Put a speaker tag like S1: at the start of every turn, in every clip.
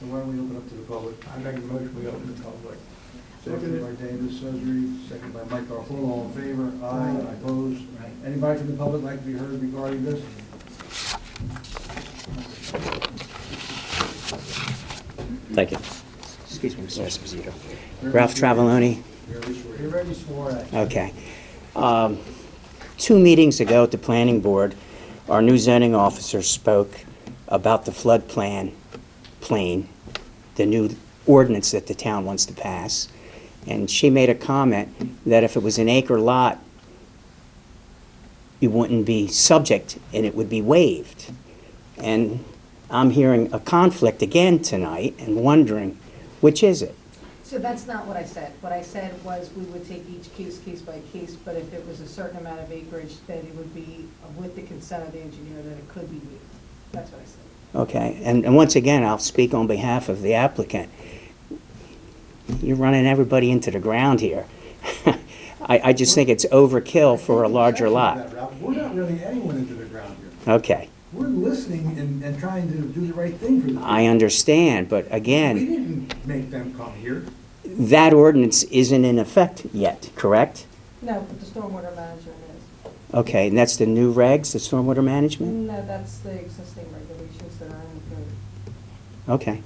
S1: So why don't we open up to the public?
S2: I make a motion, we open the public.
S1: Second by David Suzery, second by Mike Garfolo, all in favor? Aye, opposed? Anybody from the public like to be heard regarding this?
S3: Thank you. Excuse me, Mr. Esposito. Ralph Traveloni,
S1: You already swore it.
S3: okay. Um, Two meetings ago at the planning board, our new zoning officer spoke about the flood plan, plane, the new ordinance that the town wants to pass. And she made a comment that if it was an acre lot, you wouldn't be subject and it would be waived. And I'm hearing a conflict again tonight and wondering, which is it?
S4: So that's not what I said. What I said was we would take each case, case by case, but if it was a certain amount of acreage, then it would be with the consent of the engineer that it could be waived. That's what I said.
S3: Okay, and, and once again, I'll speak on behalf of the applicant. You're running everybody into the ground here. I, I just think it's overkill for a larger lot.
S1: We're not running anyone into the ground here.
S3: Okay,
S1: We're listening and, and trying to do the right thing for them.
S3: I understand, but
S1: We
S3: again,
S1: didn't make them come here.
S3: that ordinance isn't in effect yet, correct?
S4: No, but the stormwater management is.
S3: Okay, and that's the new regs, the stormwater management?
S4: No, that's the existing regulations that are in the
S3: Okay.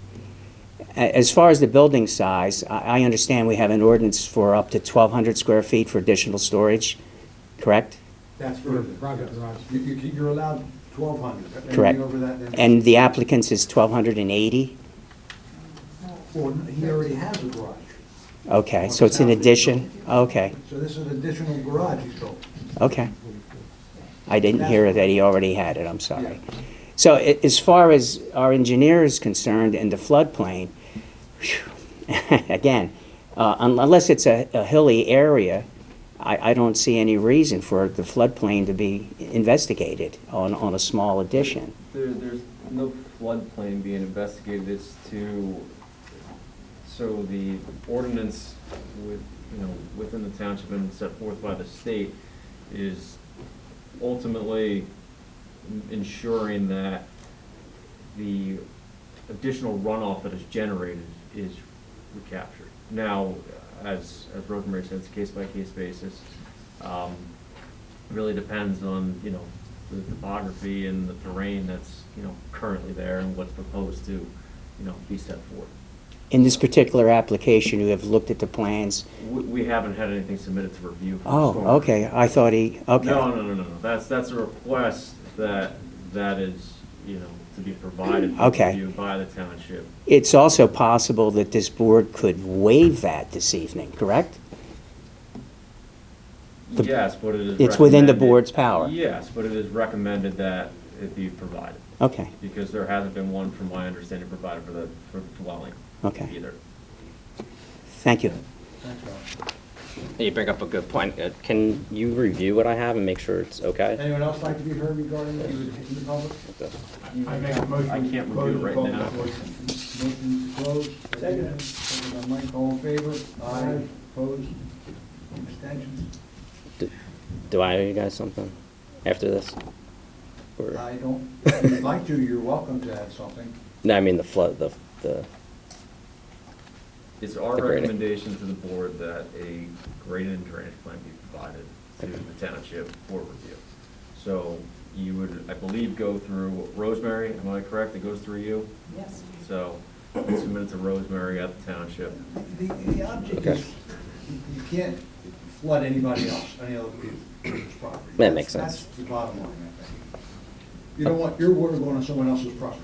S3: A- As far as the building size, I, I understand we have an ordinance for up to 1,200 square feet for additional storage, correct?
S1: That's for the private garage. You, you, you're allowed twelve hundred.
S3: Correct.
S1: Over that. then-
S3: And the applicant's is 1,280?
S4: code.
S1: Well, he already has a garage.
S3: Okay, so it's an addition? Okay,
S1: So this is an additional garage he's built.
S3: okay. I didn't hear that he already had it, I'm sorry. So a- as far as our engineer is concerned and the floodplain, phew, again, uh, un- unless it's a a hilly area, I, I don't see any reason for the floodplain to be investigated on, on a small addition.
S5: There, there's no floodplain being investigated, it's to, so the ordinance with, you know, within the township and set forth by the state is ultimately ensuring that the additional runoff that is generated is recaptured. Now, as, as Rosemary said, it's a case-by-case basis. Um, Really depends on, you know, the topography and the terrain that's, you know, currently there and what's proposed to, you know, be set forth.
S3: In this particular application, you have looked at the plans?
S5: We, we haven't had anything submitted to review. for
S3: Oh,
S5: storm.
S3: okay, I thought he, okay.
S5: No, no, no, no, no, that's, that's a request that, that is, you know, to be provided for
S3: Okay.
S5: review by the township.
S3: It's also possible that this board could waive that this evening, correct? The-
S5: Yes, but it is.
S3: It's within the
S5: recommended-
S3: board's power.
S5: Yes, but it is recommended that it be provided,
S3: Okay,
S5: because there hasn't been one, from my understanding, provided for the, for the dwelling
S3: Okay.
S5: either.
S3: thank you.
S1: Thanks, Ralph.
S6: You bring up a good point. Uh, Can you review what I have and make sure it's okay?
S1: Anyone else like to be heard regarding this in the public?
S2: I make a motion.
S5: I can't
S2: we
S5: review it right
S2: close the
S5: now.
S2: public portion.
S1: Motion to close.
S2: Second.
S1: Second by Mike, all in favor? Aye. Opposed? Abstentions?
S6: Do I owe you guys something after this? Or-
S1: I don't, if you'd like to, you're welcome to add something.
S6: No, I mean the flood, the, the,
S5: It's our
S6: The grading.
S5: recommendation to the board that a grading and drainage plan be provided to the township for review. So you would, I believe, go through Rosemary, am I correct? It goes through you?
S4: Yes.
S5: So it's submitted to Rosemary at the township.
S1: The, the object
S6: Okay.
S1: is, you can't flood anybody else, any other people's property.
S6: That makes
S1: That's-
S6: sense.
S1: That's the bottom line, I think. You don't want your water going on someone else's property.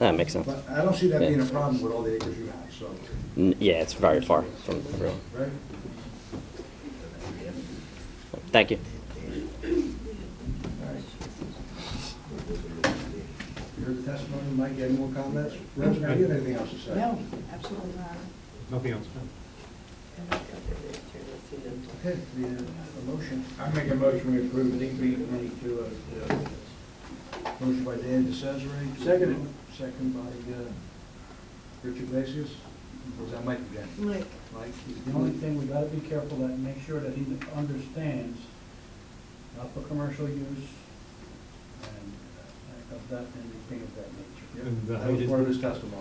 S6: that makes sense.
S1: But I don't see that being a
S6: Yeah.
S1: problem with all the acres you have, so,
S6: N- Yeah, it's very far from the road.
S1: right?
S6: Thank you.
S1: All right. You heard the testimony, Mike, you have more comments? Rosemary, do you have anything else to say?
S4: No, absolutely not.
S1: Okay, the, uh, a motion,
S2: I make a motion, we approve DB twenty-two as, uh,
S1: motion by Dan DeCesare.
S2: Seconded.
S1: Second by, uh, Richard Iglesias. Was that Mike again?
S4: Mike,
S1: Mike?
S7: The only thing, we gotta be careful that, make sure that he understands, not for commercial use, and uh, of that, and things of that nature.
S1: Yeah,
S8: And the
S1: That
S8: height
S1: was
S8: is-
S1: part of his testimony.